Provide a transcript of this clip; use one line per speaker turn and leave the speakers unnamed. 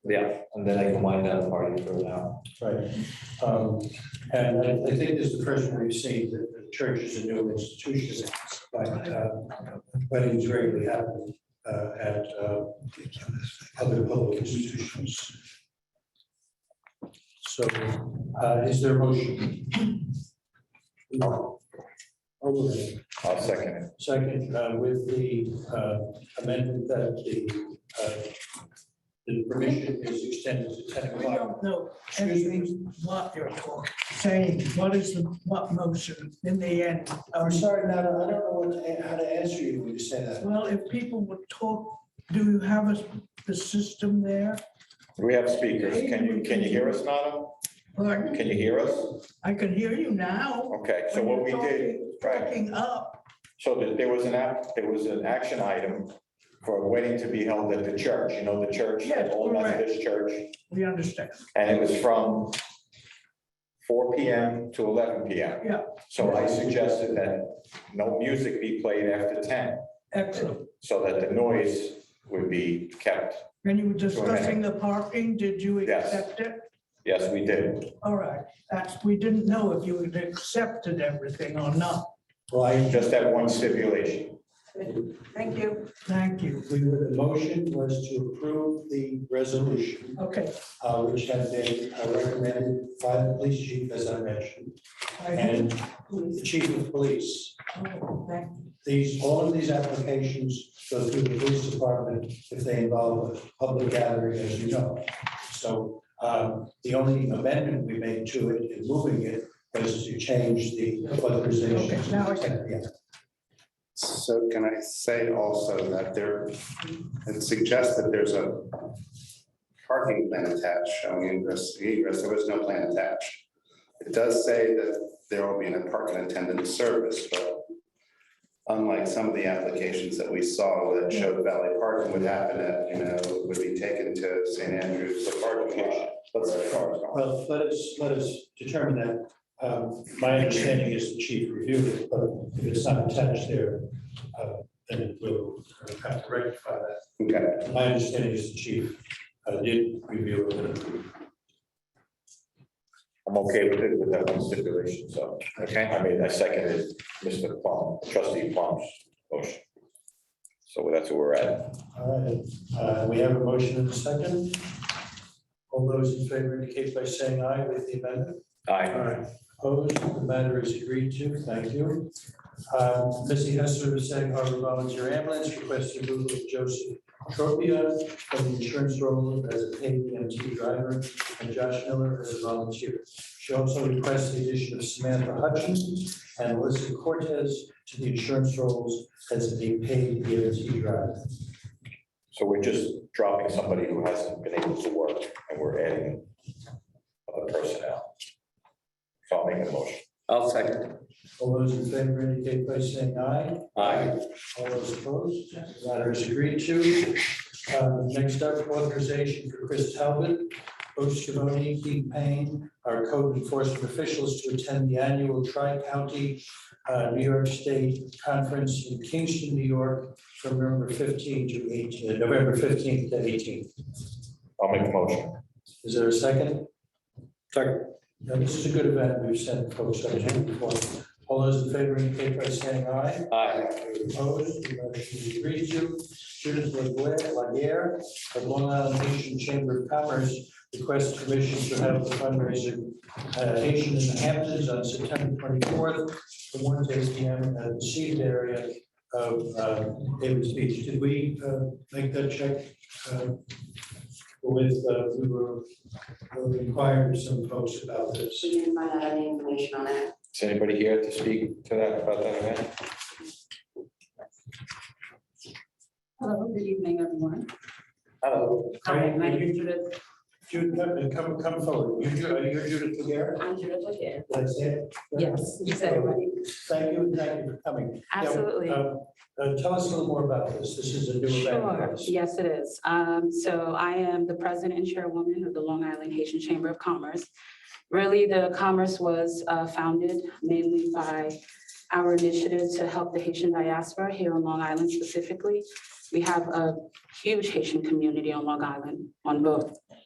Yeah, and then I can wind down the party for now.
Right. Um, And I I think this is the first one we've seen, that the church is a new institution, but uh, weddings rarely happen uh, at uh, other public institutions. So uh, is there a motion? Okay.
I'll second it.
Second, uh, with the uh, amendment that the, uh, the permission is extended to ten
We
o'clock.
don't know
Excuse me?
every what you're talking, saying, what is the, what motion in the end?
I'm sorry, Nana, I don't know what, to- how to answer you when you say that.
Well, if people would talk, do you have a, the system there?
Do we have speakers? Can you, can you hear us, Nada?
Pardon?
Can you hear us?
I can hear you now.
Okay, so
when
what we
you're
did,
talking-
right,
Talking up,
so that there was an app, there was an action item for a wedding to be held at the church, you know, the church, the
Yes,
old
correct.
Methodist church.
we understand.
And it was from four P M to eleven P M.
Yeah.
So I suggested that no music be played after ten,
Excellent.
so that the noise would be kept.
And you were
Go ahead.
discussing the parking, did you
Yes.
accept it?
Yes, we did.
All right, that's, we didn't know if you had accepted everything or not.
Well, I,
Just that one stipulation.
Thank you. Thank you.
we were, the motion was to approve the resolution,
Okay.
uh, which had been uh, recommended by the police chief, as I mentioned,
I-
and the chief of police.
oh, thank
These, all of these applications go through the police department if they involve a public gathering, as you know. So um, the only amendment we made to it in moving it was to change the authorization.
Okay, now I get
Yeah.
So can I say also that there, it suggests that there's a parking plan attached showing ingress, egress, there was no plan attached. It does say that there will be a parking attendant service, but unlike some of the applications that we saw that showed Valley Parking would happen at, you know, would be taken to St. Andrews, the parking lot. Let's say cars gone.
Well, let us, let us determine that. Um, My understanding is the chief reviewed it, but if it's not attached there, uh, then we'll have to rectify that.
Okay,
My understanding is the chief uh, did review it. and approved.
I'm okay with it, with that one stipulation, so.
okay.
I mean, I seconded Mr. Plum, trustee Plum's motion. So that's where we're at.
All right, uh, we have a motion and a second. All those in favor indicate by saying aye with the amendment.
Aye.
Aye. Opposed, the matter is agreed to, thank you. Uh, Missy Hester of Sag Harbor Volunteer Ambulance requests removal of Joseph Tropia from the insurance role as a paid EMT driver and Josh Miller as a volunteer. She also requests the addition of Samantha Hutchins and Alyssa Cortez to the insurance roles as a paid EMT driver.
So we're just dropping somebody who hasn't been able to work and we're adding other personnel. So I'll make a motion.
I'll second.
All those in favor indicate by saying aye.
Aye.
All those opposed, the matter is agreed to. Uh, Next up, authorization for Chris Talbot, Coach Scavone, Keith Payne, our code enforcement officials to attend the annual tri-county uh, New York State Conference in Kingston, New York, from November 15 to 18, uh, November 15th to 18th.
I'll make a motion.
Is there a second? Second. This is a good event. We've sent folks out here before. All those in favor indicate by saying aye.
Aye.
Opposed, the motion is agreed to. Judith Laguerre- Laguerre of Long Island Haitian Chamber of Commerce requests permission to have the fundraiser uh, Haitian in the Hamptons on September twenty-fourth from one to eight P M at the seated area of uh, Davis Beach. Did we uh, make that check? uh, With, uh, we were we inquired some folks about this.
She didn't find out any information on that.
Is anybody here to speak to that about that event?
Hello, good evening, everyone.
Hello.
Hi, my name is Judith,
Judith, come, come forward. You- You're you're Judith Laguerre?
I'm Judith Laguerre.
That's it?
Yes, you said it right.
Thank you, and thank you for coming. Yeah,
Absolutely.
uh, uh, Tell us a little more about this. This is a new event.
Sure, yes, it is. Um, so I am the president and chairwoman of the Long Island Haitian Chamber of Commerce. Really, the commerce was uh, founded mainly by our initiative to help the Haitian diaspora here on Long Island specifically. We have a huge Haitian community on Long Island, on both